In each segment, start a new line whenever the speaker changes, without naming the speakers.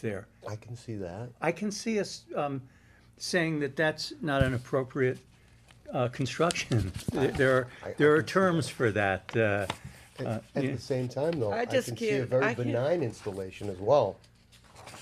there.
I can see that.
I can see us um, saying that that's not an appropriate uh, construction. There- There
I- I
are, there are
can see
terms for that. uh, uh,
At at
yeah.
the same time, though,
I
I
just
can see a
can't- I
very
can't-
benign installation as well.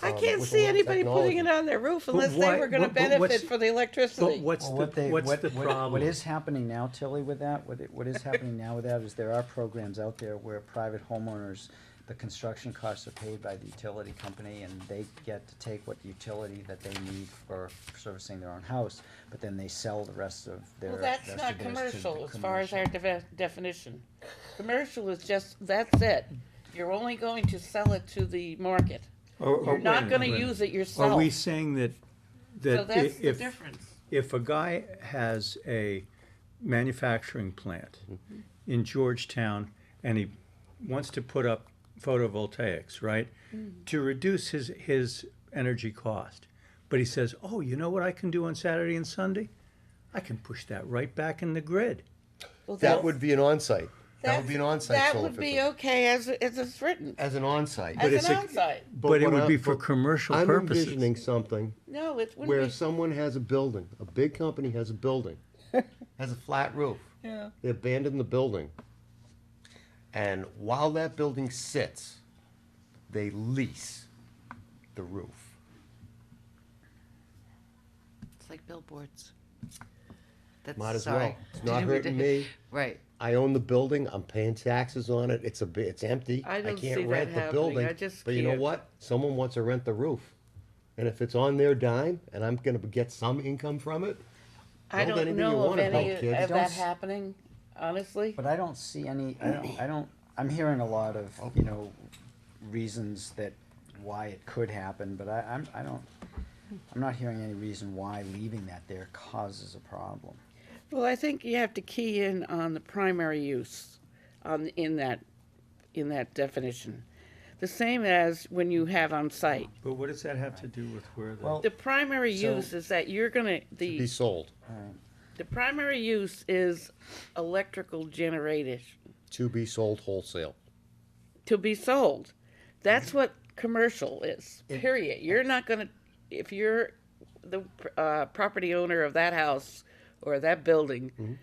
I
um,
can't
with
see
a lot of
anybody putting it
technology.
on their roof unless
why-
they were gonna
but- but what's-
benefit for the
But
electricity.
what's
Well,
the,
what they-
what's
what-
the
what-
problem?
What is happening now, Tilly, with that, what, it- what is happening now with that is there are programs out there where private homeowners, the construction costs are paid by the utility company and they get to take what utility that they need for servicing their own house, but then they sell the rest of their.
Well, that's
rest
not
of theirs to the
commercial as far as our
commercial.
deve- definition. Commercial is just, that's it. You're only going to sell it to the market.
Or- or-
You're not
wait a
gonna
minute.
use it
Are
yourself.
we saying that,
So
that
that's
i-
the
if,
difference.
if a guy has a manufacturing plant in Georgetown and he wants to put up photovoltaics, right? To reduce his, his energy cost. But he says, oh, you know what I can do on Saturday and Sunday? I can push that right back in the grid.
Well,
That
that's-
would be an on-site. That
that's-
would be an on-site
That
solar
would be
system.
okay as, as it's written,
As an on-site.
as
it's
an
a-
onsite.
But, it
what
would
I-
be for
but
commercial
I'm
purposes.
envisioning something
No, it
where
wouldn't be.
someone has a building, a big company has a building, has a flat roof.
Yeah.
They abandon the building. And while that building sits, they lease the roof.
It's like billboards. That's
Might as
sorry.
well. It's not hurting me.
Right.
I own the building, I'm paying taxes on it, it's a, bi- it's empty,
I
I
don't see
can't
that
rent the
happening,
building.
I just
But you know
can't.
what? Someone wants to rent the roof. And if it's on their dime and I'm gonna get some income from it,
I
build anything
don't
you
know of
wanna
any
build, kids.
of
Don't
that
s-
happening, honestly.
But I don't see any, I don't, I don't, I'm hearing a lot of, you know, reasons that, why it could happen, but I, I'm, I don't, I'm not hearing any reason why leaving that there causes a problem.
Well, I think you have to key in on the primary use on, in that, in that definition. The same as when you have on site.
But what does that have to do with where the?
Well,
The primary
So-
use is that you're gonna,
be
the,
sold
the primary use is electrical generated
to be sold wholesale.
to be sold. That's what commercial is, period. You're not gonna, if you're the, uh, property owner of that house or that building,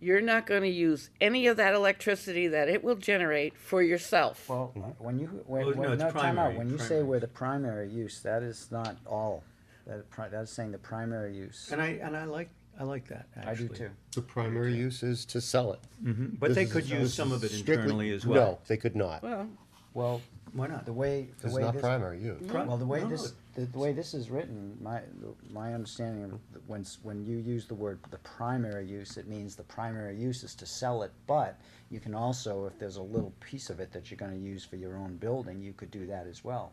you're not gonna use any of that electricity that it will generate for yourself.
Well, when you, when,
Well, no,
when,
it's
no, time
primary,
out, when you say
primary.
where the primary use, that is not all. That, pri- that is saying the primary use.
And I, and I like, I like that,
I do
actually.
too.
The primary use is to sell it.
But
This
they
is-
could
this
use
is
some of it
strictly-
internally as well.
No, they could not.
Well,
Well,
Why not?
the way, the
It's
way
not
this-
primary use.
Pri-
Well, the way
no,
this,
no.
the the way this is written, my, my understanding of the- when, s- when you use the word the primary use, it means the primary use is to sell it, but you can also, if there's a little piece of it that you're gonna use for your own building, you could do that as well.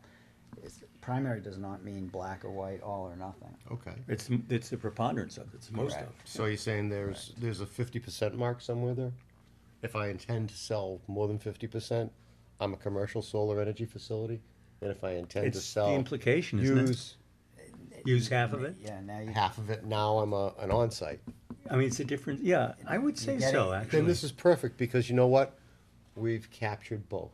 It's- Primary does not mean black or white, all or nothing.
Okay.
It's, it's the preponderance of it, it's most of it.
So you're saying there's, there's a fifty percent mark somewhere there? If I intend to sell more than fifty percent, I'm a commercial solar energy facility, and if I intend to
It's the
sell.
implication, isn't it?
Use
Use half of it?
Yeah, now you.
half of it, now I'm a, an onsite.
I mean, it's a different, yeah, I would say
get
so,
it.
actually.
Then this is perfect, because you know what? We've captured both.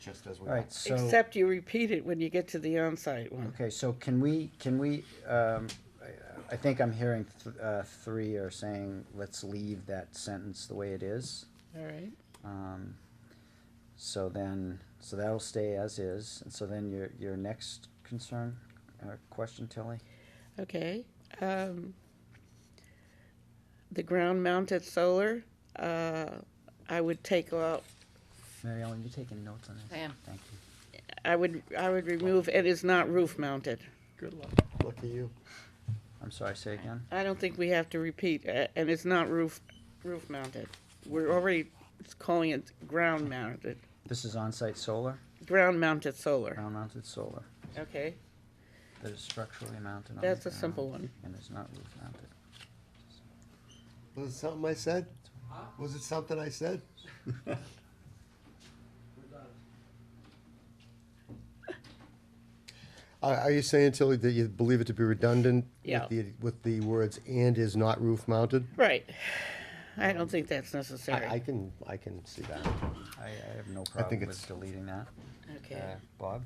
Just as we.
All right, so.
except you repeat it when you get to the on-site one.
Okay, so can we, can we, um, I- I think I'm hearing th- uh, three are saying, let's leave that sentence the way it is.
All right.
Um, So then, so that'll stay as is, and so then your, your next concern, or question, Tilly?
Okay. Um, the ground-mounted solar, uh, I would take out,
Mary Ellen, you taking notes on this?
I am.
Thank you.
I would, I would remove, it is not roof-mounted.
Good luck.
Look at you.
I'm sorry, say again?
I don't think we have to repeat, uh, and it's not roof, roof-mounted. We're already calling it ground-mounted,
This is on-site solar,
ground-mounted solar,
ground-mounted solar,
okay?
that is structurally mounted on the
That's a simple
ground
one.
And is not roof-mounted.
Was it something I said? Was it something I said? Are, are you saying, Tilly, that you believe it to be redundant?
Yeah.
With the, with the words "and is not roof mounted"?
Right. I don't think that's
I, I
necessary.
can, I can see that.
I, I have no
I think
problem
it's-
with deleting that.
Okay.
Uh, Bob?